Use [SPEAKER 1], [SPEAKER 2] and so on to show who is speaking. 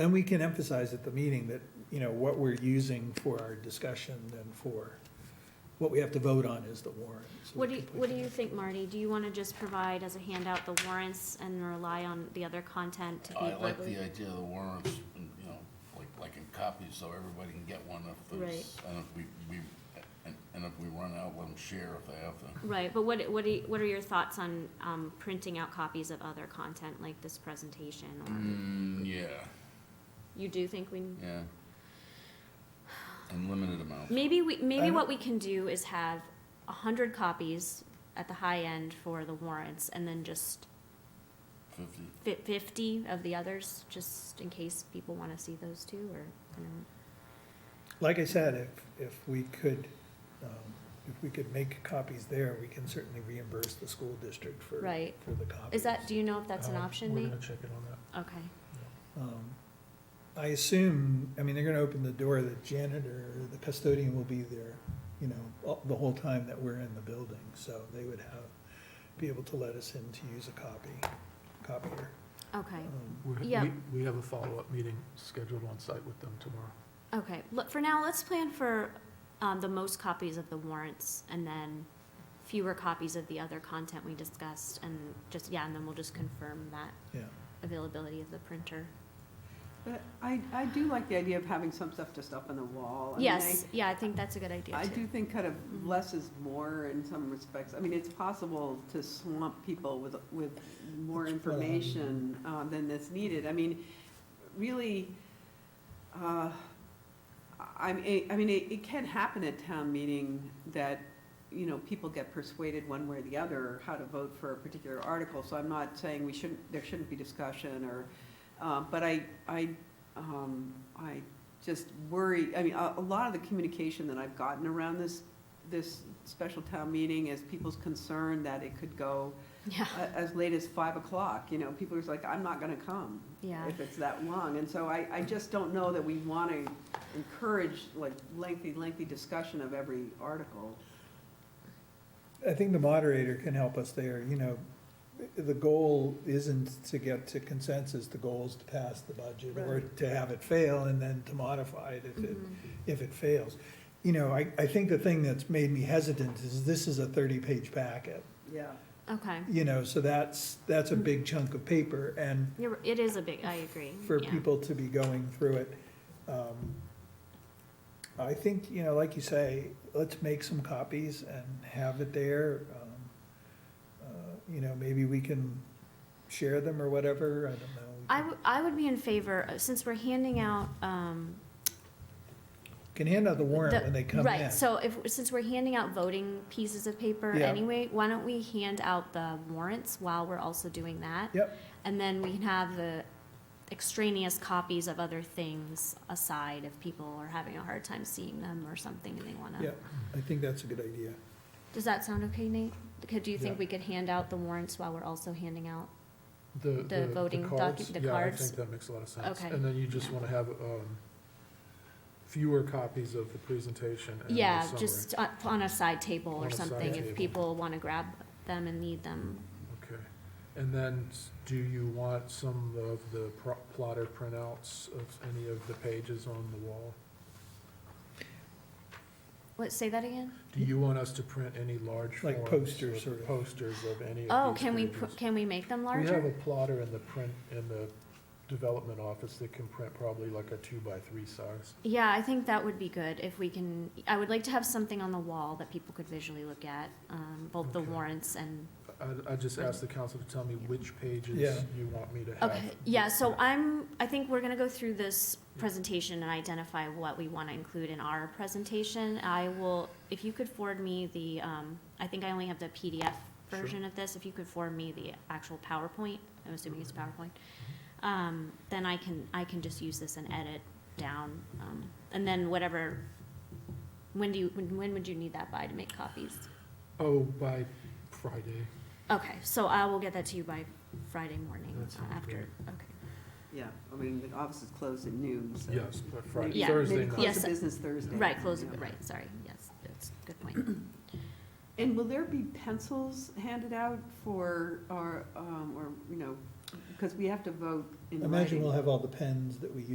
[SPEAKER 1] And we can emphasize at the meeting that, you know, what we're using for our discussion and for, what we have to vote on is the warrant. so we
[SPEAKER 2] What do you,
[SPEAKER 1] can put
[SPEAKER 2] what do
[SPEAKER 1] that.
[SPEAKER 2] you think, Marty? Do you want to just provide as a handout the warrants and rely on the other content to be
[SPEAKER 3] I like
[SPEAKER 2] verbally-
[SPEAKER 3] the uh, idea of the warrants, and, you know, like, like in copies, so everybody can get one if there's, and if we, we, and, and if we run out, let them share if they have to.
[SPEAKER 2] Right, but what, what do you, what are your thoughts on, um, printing out copies of other content like this presentation? or-
[SPEAKER 3] Mm, yeah,
[SPEAKER 2] You do think we,
[SPEAKER 3] yeah. In limited amounts.
[SPEAKER 2] maybe we,
[SPEAKER 1] I
[SPEAKER 2] maybe
[SPEAKER 1] don't-
[SPEAKER 2] what we can do is have a hundred copies at the high end for the warrants and then just
[SPEAKER 3] fifty.
[SPEAKER 2] fi- fifty of the others, just in case people want to see those too, or, you know.
[SPEAKER 1] Like I said, if, if we could, um, if we could make copies there, we can certainly reimburse the school district for,
[SPEAKER 2] Right.
[SPEAKER 1] for the copies.
[SPEAKER 2] Is that, do you know if that's an
[SPEAKER 1] Uh,
[SPEAKER 2] option,
[SPEAKER 1] We're
[SPEAKER 2] Nate?
[SPEAKER 1] gonna check it on that.
[SPEAKER 2] Okay,
[SPEAKER 1] Um, I assume, I mean, they're gonna open the door, the janitor, or the custodian will be there, you know, all- the whole time that we're in the building, so they would have, be able to let us in to use a copy, copier.
[SPEAKER 2] okay.
[SPEAKER 1] Um,
[SPEAKER 4] We're-
[SPEAKER 2] Yeah.
[SPEAKER 4] We, we have a follow-up meeting scheduled on site with them tomorrow.
[SPEAKER 2] Okay, look, for now, let's plan for, um, the most copies of the warrants and then fewer copies of the other content we discussed and just, yeah, and then we'll just confirm that
[SPEAKER 1] Yeah,
[SPEAKER 2] availability of the printer.
[SPEAKER 5] But I, I do like the idea of having some stuff just up on the wall. Oh, I mean,
[SPEAKER 2] Yes, yeah, I think that's a good idea
[SPEAKER 5] I I
[SPEAKER 2] too.
[SPEAKER 5] do think kind of
[SPEAKER 2] Mhm.
[SPEAKER 5] less is more in some respects. I mean, it's possible to swamp people with, with
[SPEAKER 1] That's
[SPEAKER 5] more
[SPEAKER 1] what I-
[SPEAKER 5] information uh, than that's needed. I mean, really, uh, I mean, I mean, it it can happen at town meeting that, you know, people get persuaded one way or the other how to vote for a particular article. So I'm not saying we shouldn't, there shouldn't be discussion or, uh, but I, I, um, I just worry, I mean, a, a lot of the communication that I've gotten around this, this special town meeting is people's concern that it could go
[SPEAKER 2] Yeah,
[SPEAKER 5] a- as late as five o'clock, you know, people are just like, I'm not gonna come
[SPEAKER 2] yeah,
[SPEAKER 5] if it's that long. And so I, I just don't know that we want to encourage like lengthy, lengthy discussion of every article.
[SPEAKER 1] I think the moderator can help us there, you know, the, the goal isn't to get to consensus, the goal is to pass the budget or to have it fail and then to modify it if it
[SPEAKER 2] Mhm.
[SPEAKER 1] if it fails. You know, I, I think the thing that's made me hesitant is this is a thirty-page packet,
[SPEAKER 5] Yeah.
[SPEAKER 2] okay.
[SPEAKER 1] you know, so that's, that's a big chunk of paper, and
[SPEAKER 2] You're, it is a big, I agree,
[SPEAKER 1] for
[SPEAKER 2] yeah.
[SPEAKER 1] people to be going through it. um, I think, you know, like you say, let's make some copies and have it there. um, uh, You know, maybe we can share them or whatever, I don't know.
[SPEAKER 2] I would, I would be in favor, uh, since we're handing out, um,
[SPEAKER 1] Can hand out the warrant
[SPEAKER 2] The-
[SPEAKER 1] when they come in.
[SPEAKER 2] Right, so if, since we're handing out voting pieces of paper
[SPEAKER 1] Yeah.
[SPEAKER 2] anyway, why don't we hand out the warrants while we're also doing that?
[SPEAKER 1] Yep.
[SPEAKER 2] And then we can have the extraneous copies of other things aside if people are having a hard time seeing them or something and they wanna.
[SPEAKER 1] Yeah. I think that's a good idea.
[SPEAKER 2] Does that sound okay, Nate? Could, do you
[SPEAKER 1] Yeah.
[SPEAKER 2] think we could hand out the warrants while we're also handing out?
[SPEAKER 4] The, the,
[SPEAKER 2] voting
[SPEAKER 4] the
[SPEAKER 2] docu-
[SPEAKER 4] cards,
[SPEAKER 2] the
[SPEAKER 4] yeah, I
[SPEAKER 2] cards?
[SPEAKER 4] think that makes a lot of sense.
[SPEAKER 2] Okay.
[SPEAKER 4] And then you just
[SPEAKER 2] Yeah.
[SPEAKER 4] wanna have, um, fewer copies of the presentation and Uh, the summary.
[SPEAKER 2] Yeah, just on, on a side table
[SPEAKER 4] On
[SPEAKER 2] or
[SPEAKER 4] a side
[SPEAKER 2] something, if
[SPEAKER 4] table.
[SPEAKER 2] people wanna grab them and need them.
[SPEAKER 4] Okay, and then s- do you want some of the pro- plotter printouts of any of the pages on the wall?
[SPEAKER 2] What, say that again?
[SPEAKER 4] Do you want us to print any large
[SPEAKER 1] Like
[SPEAKER 4] forms?
[SPEAKER 1] posters,
[SPEAKER 4] or
[SPEAKER 1] sort of.
[SPEAKER 4] Posters of any
[SPEAKER 2] Oh,
[SPEAKER 4] of these
[SPEAKER 2] can we,
[SPEAKER 4] pages?
[SPEAKER 2] pr- can we make them
[SPEAKER 4] We have a
[SPEAKER 2] larger?
[SPEAKER 4] plotter in the print, in the development office that can print probably like a two by three size.
[SPEAKER 2] Yeah, I think that would be good if we can, I would like to have something on the wall that people could visually look at, um, both the
[SPEAKER 4] Okay.
[SPEAKER 2] warrants and
[SPEAKER 4] I, I just asked the council to tell me which pages
[SPEAKER 1] Yeah.
[SPEAKER 4] you want me to have.
[SPEAKER 2] Okay, yeah, so I'm, I think we're gonna go through this presentation and identify what we wanna include in our presentation. I will, if you could forward me the, um, I think I only have the PDF
[SPEAKER 4] Sure.
[SPEAKER 2] version of this, if you could forward me the actual PowerPoint, I'm assuming it's
[SPEAKER 4] Mm-hmm.
[SPEAKER 2] PowerPoint. Um, then I can, I can just use this and edit down, um, and then whatever, when do you, when, when would you need that by to make copies?
[SPEAKER 4] Oh, by Friday.
[SPEAKER 2] Okay, so I will get that to you by Friday morning uh,
[SPEAKER 4] That sounds
[SPEAKER 2] after,
[SPEAKER 4] great.
[SPEAKER 2] okay.
[SPEAKER 5] Yeah, I mean, the office is closed at noon, so.
[SPEAKER 4] Yes, by Friday,
[SPEAKER 2] Yeah.
[SPEAKER 4] Thursday
[SPEAKER 5] Maybe
[SPEAKER 4] night.
[SPEAKER 5] close
[SPEAKER 2] Yes.
[SPEAKER 5] the business Thursday.
[SPEAKER 2] Right, closing,
[SPEAKER 5] Yeah.
[SPEAKER 2] right, sorry, yes, that's a good point.
[SPEAKER 5] And will there be pencils handed out for, or, um, or, you know, because we have to vote in writing.
[SPEAKER 1] Imagine we'll have all the pens that we